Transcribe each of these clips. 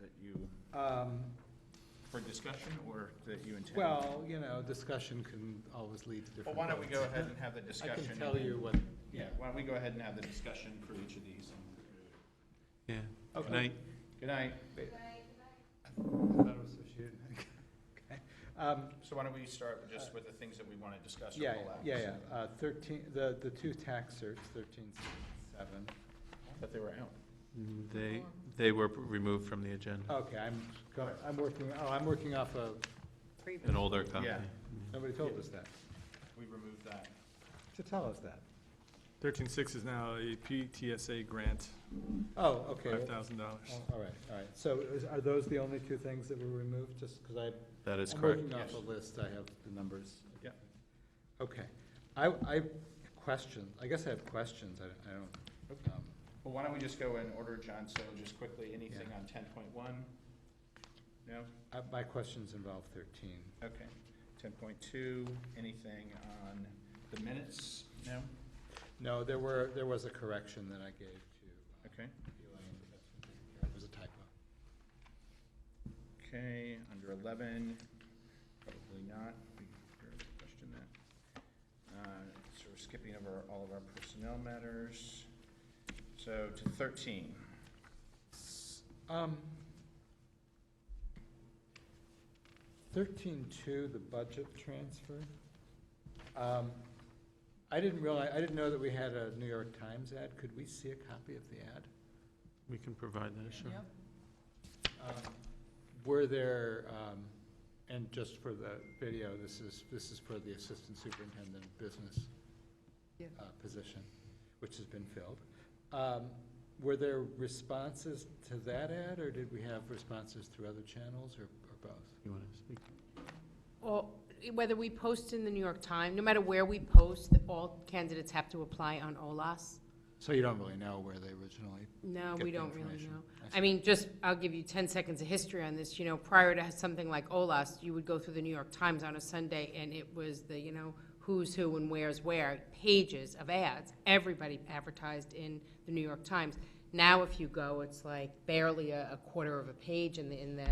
that you, Um, for discussion or that you intend? Well, you know, discussion can always lead to different. Well, why don't we go votes. ahead and have the I discussion? can tell you what, yeah. Yeah, why don't we go ahead and have the discussion for each of these? Yeah. Okay. Good night. Good night. I thought it was associated. Okay. Um, So why don't we start with just with the things that we want to discuss or Yeah, pull out? yeah, yeah, Uh, thirteen, the, the two tax certs, thirteen seven. But they were out. They, they were removed from the agenda, Okay, I'm, go- I'm working, oh, I'm working off of, an older copy. Yeah. nobody told us that, We removed that. to tell us that. Thirteen six is now a PTSA grant, Oh, okay. five well, thousand dollars. oh, All right, all right. So is- are those the only two things that were removed, just because I? That is I'm correct. working off a Yes. list, I have the numbers. Yeah. Okay. I, I, question, I guess I have questions, I I don't, um, Well, why don't we just go in order, John? So just quickly, anything Yeah. on ten point one? No? I- my questions involve thirteen. Okay. Ten point two, anything on the minutes? No? No, there were, there was a correction that I gave to. uh, Okay. Elaine, but that's been taken care of. It was a typo. Okay, under eleven, probably not, we barely questioned that. Uh, So we're skipping over all of our personnel matters. So to thirteen, Um, Thirteen-two, the budget transfer. Um, I didn't realize, I didn't know that we had a New York Times ad. Could we see a copy of the ad? We can provide that, sure. Um, Were there, um, and just for the video, this is, this is for the assistant superintendent business Yeah. uh, position, which has been filled. Um, Were there responses to that ad, or did we have responses through other channels, or or both? You want to speak? Well, whether we post in the New York Times, no matter where we post, all candidates have to apply on OLAS. So you don't really know where they originally, No, Get we the don't really information. know. I see. I mean, just, I'll give you 10 seconds of history on this. You know, prior to something like OLAS, you would go through the New York Times on a Sunday, and it was the, you know, who's who and where's where, pages of ads. Everybody advertised in the New York Times. Now, if you go, it's like barely a a quarter of a page in the, in the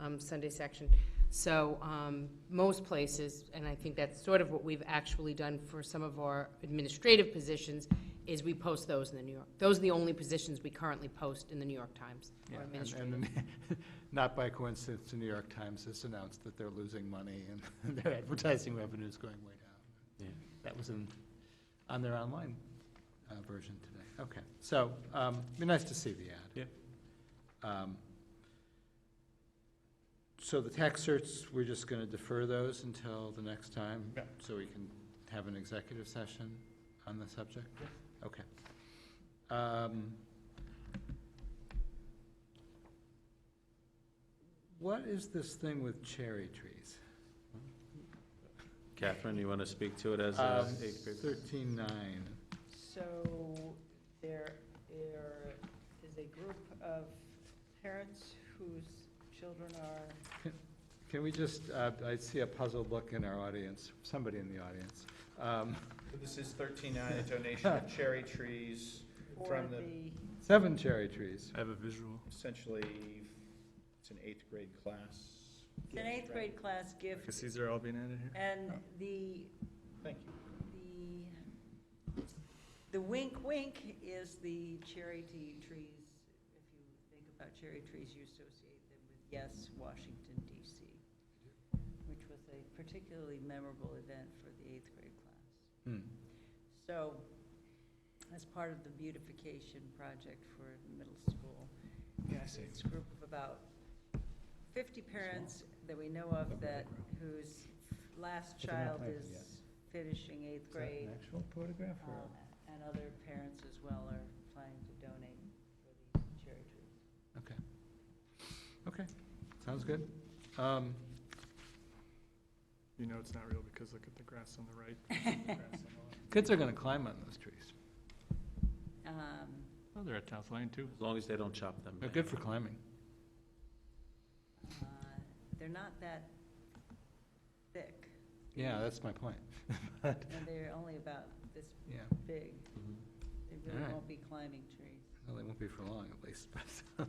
um, Sunday section. So um, most places, and I think that's sort of what we've actually done for some of our administrative positions, is we post those in the New York, those are the only positions we currently post in the New York Times. or Yeah, and- administrative. and not by coincidence, the New York Times has announced that they're losing money and their advertising revenue is going way down. Yeah. That was in, on their online uh, version today. Okay, so, um, be nice to see the ad. Yeah. So the tax certs, we're just gonna defer those until the next time? Yeah. So we can have an executive session on the subject? Okay. Um, What is this thing with cherry trees? Catherine, you want to speak to it as Um, a eighth grader? Thirteen nine. So there, there is a group of parents whose children are, Can we just, uh, I see a puzzled look in our audience, somebody in the audience. Um, this is thirteen nine, a donation of cherry trees or from the, the, Seven cherry trees. I have a visual. essentially, it's an eighth grade class. it's an eighth grade class Because gift, these are all being added here. and the, Thank you. the, the wink wink is the cherry tea trees. If you think about cherry trees, you associate them with, yes, Washington DC, which was a particularly memorable event for the eighth grade class. Hmm. So, as part of the beautification project for middle school, we have this group of about fifty parents that we know of that, whose last But they're not child planted yet. is finishing eighth grade. actual photograph um, And other parents as well are planning to donate for these cherry trees. Okay. Okay, sounds good. Um, You know it's not real because look at the grass on the right. the grass on the left. Kids are gonna climb on those trees. Um, Oh, they're at South Lane too. As long as they don't chop them. They're down. Oh, good for climbing. uh, They're not that thick, Yeah, that's my point. But, and they're only about this Yeah, big. Mhm. They All really right. won't be climbing trees. well, they won't be for long at least, but.